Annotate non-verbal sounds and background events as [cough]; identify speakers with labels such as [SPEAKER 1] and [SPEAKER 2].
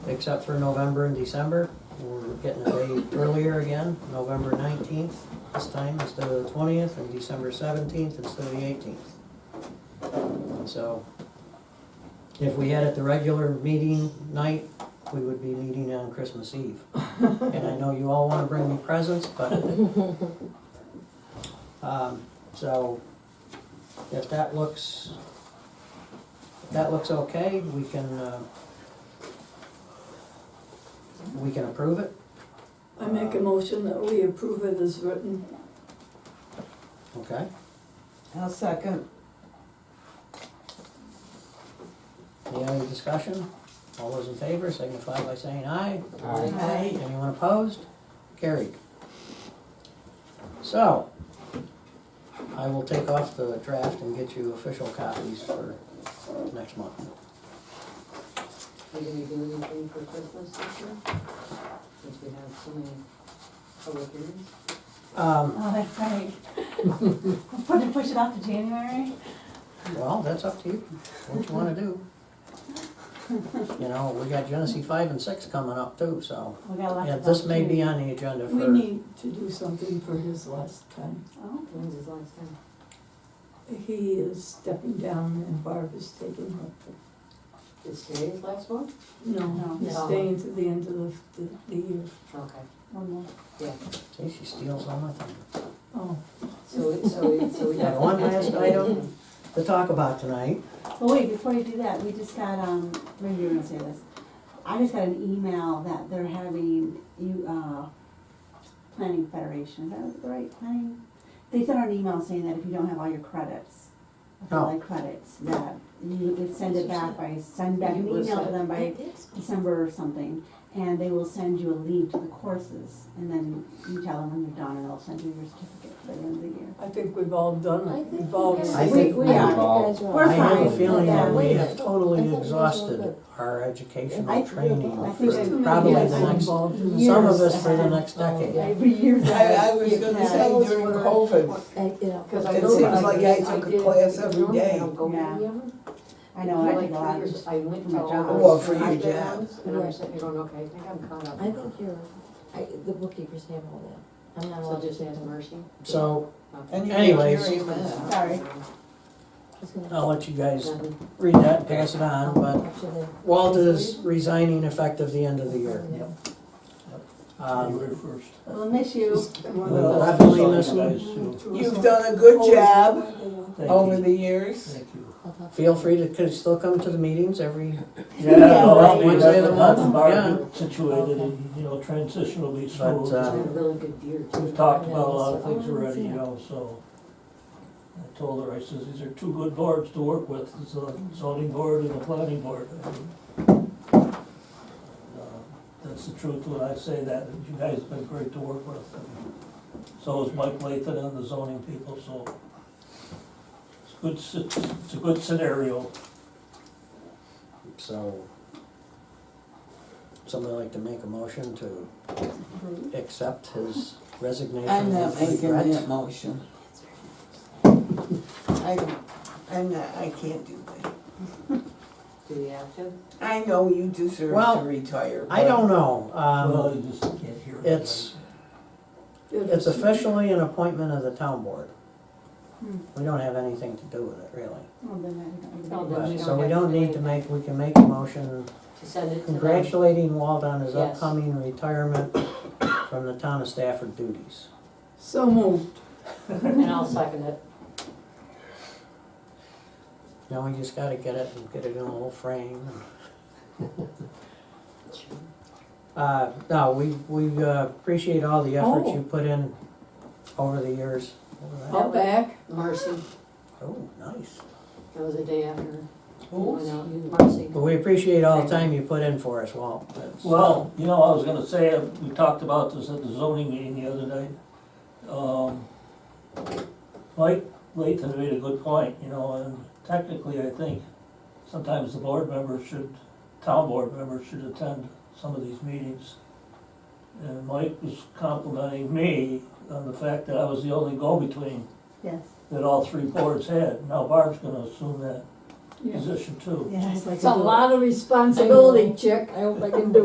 [SPEAKER 1] except for November and December. We're getting a day earlier again, November nineteenth this time instead of the twentieth, and December seventeenth instead of the eighteenth. So, if we had it the regular meeting night, we would be meeting on Christmas Eve. And I know you all wanna bring me presents, but. Um, so, if that looks, if that looks okay, we can, uh, we can approve it.
[SPEAKER 2] I make a motion that we approve it as written.
[SPEAKER 1] Okay.
[SPEAKER 3] I'll second.
[SPEAKER 1] Any other discussion? All those in favor signify by saying aye.
[SPEAKER 3] Aye.
[SPEAKER 1] Anyone opposed? Carried. So, I will take off the draft and get you official copies for next month.
[SPEAKER 4] Are you gonna do anything for Christmas this year? Since we have so many public hearings?
[SPEAKER 1] Um,
[SPEAKER 5] Oh, that's right. [laughs] Put it, push it off to January?
[SPEAKER 1] Well, that's up to you, what you wanna do. You know, we got Genesee five and six coming up too, so,
[SPEAKER 5] We got lots
[SPEAKER 1] yeah,
[SPEAKER 5] of.
[SPEAKER 1] this may be
[SPEAKER 5] opportunity.
[SPEAKER 1] on the agenda
[SPEAKER 2] We
[SPEAKER 1] for,
[SPEAKER 2] need to do something for his last time.
[SPEAKER 5] Oh,
[SPEAKER 4] When's his last time?
[SPEAKER 2] He is stepping down and Barb is taking her.
[SPEAKER 4] Is today his last one?
[SPEAKER 2] No,
[SPEAKER 5] No.
[SPEAKER 2] he's
[SPEAKER 4] No.
[SPEAKER 2] staying to the end of the, the year.
[SPEAKER 4] Okay,
[SPEAKER 5] one more.
[SPEAKER 4] yeah.
[SPEAKER 1] see, she steals all my thunder.
[SPEAKER 2] Oh,
[SPEAKER 4] So, it- so,
[SPEAKER 3] [laughs]
[SPEAKER 4] it- so we
[SPEAKER 1] Yeah,
[SPEAKER 4] have.
[SPEAKER 1] one last item. To talk about tonight,
[SPEAKER 5] Well, wait, before you do that, we just got, um, maybe you're gonna say this. I just got an email that they're having, you, uh, Planning Federation, is that the right planning? They sent out an email saying that if you don't have all your credits,
[SPEAKER 1] Oh.
[SPEAKER 5] all your credits, that you could send it back by, send back an email to them by December or something, and they will send you a lead to the courses, and then you tell them when you're done, and they'll send you your certificate by the end of the year.
[SPEAKER 2] I think we've all done
[SPEAKER 6] I
[SPEAKER 2] it.
[SPEAKER 6] think
[SPEAKER 2] We've all
[SPEAKER 6] we
[SPEAKER 1] I
[SPEAKER 6] guys-
[SPEAKER 2] received.
[SPEAKER 1] think
[SPEAKER 6] we
[SPEAKER 1] we-
[SPEAKER 6] are.
[SPEAKER 5] We're
[SPEAKER 1] I have a
[SPEAKER 5] fine.
[SPEAKER 1] feeling that we
[SPEAKER 6] Wait,
[SPEAKER 1] have
[SPEAKER 6] I
[SPEAKER 1] totally
[SPEAKER 6] thought you guys were
[SPEAKER 1] exhausted
[SPEAKER 6] good.
[SPEAKER 1] our
[SPEAKER 5] I-
[SPEAKER 1] educational
[SPEAKER 5] I
[SPEAKER 1] training
[SPEAKER 5] think
[SPEAKER 1] for
[SPEAKER 5] so.
[SPEAKER 2] There's too many
[SPEAKER 1] probably
[SPEAKER 2] guys
[SPEAKER 1] the next,
[SPEAKER 2] involved in this.
[SPEAKER 1] some of
[SPEAKER 5] years
[SPEAKER 1] us for the
[SPEAKER 5] ahead.
[SPEAKER 1] next decade.
[SPEAKER 5] [laughs]
[SPEAKER 4] Yeah.
[SPEAKER 5] Every year
[SPEAKER 3] I,
[SPEAKER 5] that
[SPEAKER 3] I was
[SPEAKER 5] you
[SPEAKER 3] gonna
[SPEAKER 5] can-
[SPEAKER 3] say during
[SPEAKER 4] Yeah.
[SPEAKER 3] COVID,
[SPEAKER 4] Cause I
[SPEAKER 3] It
[SPEAKER 4] know
[SPEAKER 3] seems
[SPEAKER 4] I
[SPEAKER 3] like
[SPEAKER 4] did-
[SPEAKER 3] I took a
[SPEAKER 4] did-
[SPEAKER 3] class every
[SPEAKER 4] I
[SPEAKER 3] day.
[SPEAKER 4] don't go to any of them.
[SPEAKER 5] I know, I
[SPEAKER 4] For like
[SPEAKER 5] think a
[SPEAKER 4] three
[SPEAKER 5] lot
[SPEAKER 4] years,
[SPEAKER 5] of,
[SPEAKER 4] I went
[SPEAKER 5] my
[SPEAKER 4] to all
[SPEAKER 5] job.
[SPEAKER 4] those
[SPEAKER 3] Well, for your
[SPEAKER 4] night
[SPEAKER 3] job.
[SPEAKER 4] rounds, And I'm
[SPEAKER 6] Right.
[SPEAKER 4] sitting here going, okay, I think I'm caught up.
[SPEAKER 6] I think you're, I, the bookkeepers have all that. I'm not
[SPEAKER 4] So
[SPEAKER 6] allowed
[SPEAKER 4] just
[SPEAKER 6] to.
[SPEAKER 4] ask Mercy.
[SPEAKER 1] So,
[SPEAKER 4] Okay.
[SPEAKER 3] and you
[SPEAKER 1] Anyways.
[SPEAKER 3] hear that.
[SPEAKER 5] sorry,
[SPEAKER 6] Just gonna-
[SPEAKER 1] I'll let you guys
[SPEAKER 4] Nothing.
[SPEAKER 1] read that, pass it on, Uh, but
[SPEAKER 6] Up to the-
[SPEAKER 1] Walt is resigning effective the end of the year. Um,
[SPEAKER 7] January first.
[SPEAKER 5] we'll miss you. [laughs]
[SPEAKER 1] We'll definitely miss him.
[SPEAKER 3] You've done a good job over the years.
[SPEAKER 7] Thank you.
[SPEAKER 6] I'll talk to
[SPEAKER 1] Feel free to, could still come to the meetings every,
[SPEAKER 7] Yeah,
[SPEAKER 5] Yeah,
[SPEAKER 7] well,
[SPEAKER 1] right.
[SPEAKER 7] we
[SPEAKER 1] Wednesday
[SPEAKER 7] have
[SPEAKER 1] of the
[SPEAKER 7] to have
[SPEAKER 1] month,
[SPEAKER 7] the bar
[SPEAKER 1] yeah.
[SPEAKER 7] get situated and, you know, transition will be
[SPEAKER 1] But,
[SPEAKER 7] smooth.
[SPEAKER 4] I
[SPEAKER 1] uh,
[SPEAKER 4] had a really good year too.
[SPEAKER 7] We've talked about a lot of things
[SPEAKER 1] Oh,
[SPEAKER 7] already, you know, so. I told her, I says, these are two good boards to work with, it's the zoning board and the planning board. I mean, uh, That's the truth when I say that, and you guys have been great to work with. and So is Mike Lathan and the zoning people, so. It's good, s- it's a good scenario.
[SPEAKER 1] so. Somebody like to make a motion to accept his resignation?
[SPEAKER 3] I'm not
[SPEAKER 1] with
[SPEAKER 3] making
[SPEAKER 1] regret?
[SPEAKER 3] that motion. I, I'm not, I can't do that.
[SPEAKER 4] Do we have to?
[SPEAKER 3] I know you deserve
[SPEAKER 1] Well,
[SPEAKER 3] to retire.
[SPEAKER 1] I don't know,
[SPEAKER 7] Well,
[SPEAKER 1] um,
[SPEAKER 7] you just can't hear it.
[SPEAKER 1] it's- it's officially an appointment of the town board. We don't have anything to do with it, really.
[SPEAKER 5] Well, then I don't
[SPEAKER 4] Oh,
[SPEAKER 5] even-
[SPEAKER 4] then we
[SPEAKER 1] But, so we
[SPEAKER 4] have
[SPEAKER 1] don't
[SPEAKER 4] to
[SPEAKER 1] need
[SPEAKER 4] do
[SPEAKER 1] to
[SPEAKER 4] it.
[SPEAKER 1] make, we can make a motion
[SPEAKER 4] To send it to them?
[SPEAKER 1] congratulating Walt on his
[SPEAKER 4] Yes.
[SPEAKER 1] upcoming retirement from the town of Stafford duties.
[SPEAKER 2] So moved.
[SPEAKER 4] And I'll second it.
[SPEAKER 1] Now we just gotta get it and get it in a little frame. Uh, no, we, we uh, appreciate all the effort
[SPEAKER 2] Oh.
[SPEAKER 1] you put in over the years. Look at that.
[SPEAKER 2] I'll back.
[SPEAKER 4] Mercy,
[SPEAKER 1] Oh, nice.
[SPEAKER 4] that was the day after. you went
[SPEAKER 1] But
[SPEAKER 4] out. Mercy.
[SPEAKER 1] we appreciate all the time you put in for us, Walt. That's-
[SPEAKER 7] Well, you know, I was gonna say, uh, we talked about this at the zoning meeting the other night. Um, Mike Lathan made a good point, you know, and technically, I think sometimes the board members should, town board members should attend some of these meetings. And Mike was complimenting me on the fact that I was the only go-between
[SPEAKER 5] Yes.
[SPEAKER 7] that all three boards had. Now Barb's gonna assume that
[SPEAKER 2] Yeah.
[SPEAKER 7] position too.
[SPEAKER 5] Yeah, I'd like to
[SPEAKER 2] It's a
[SPEAKER 5] do it.
[SPEAKER 2] lot of responsibility, chick. I hope I can do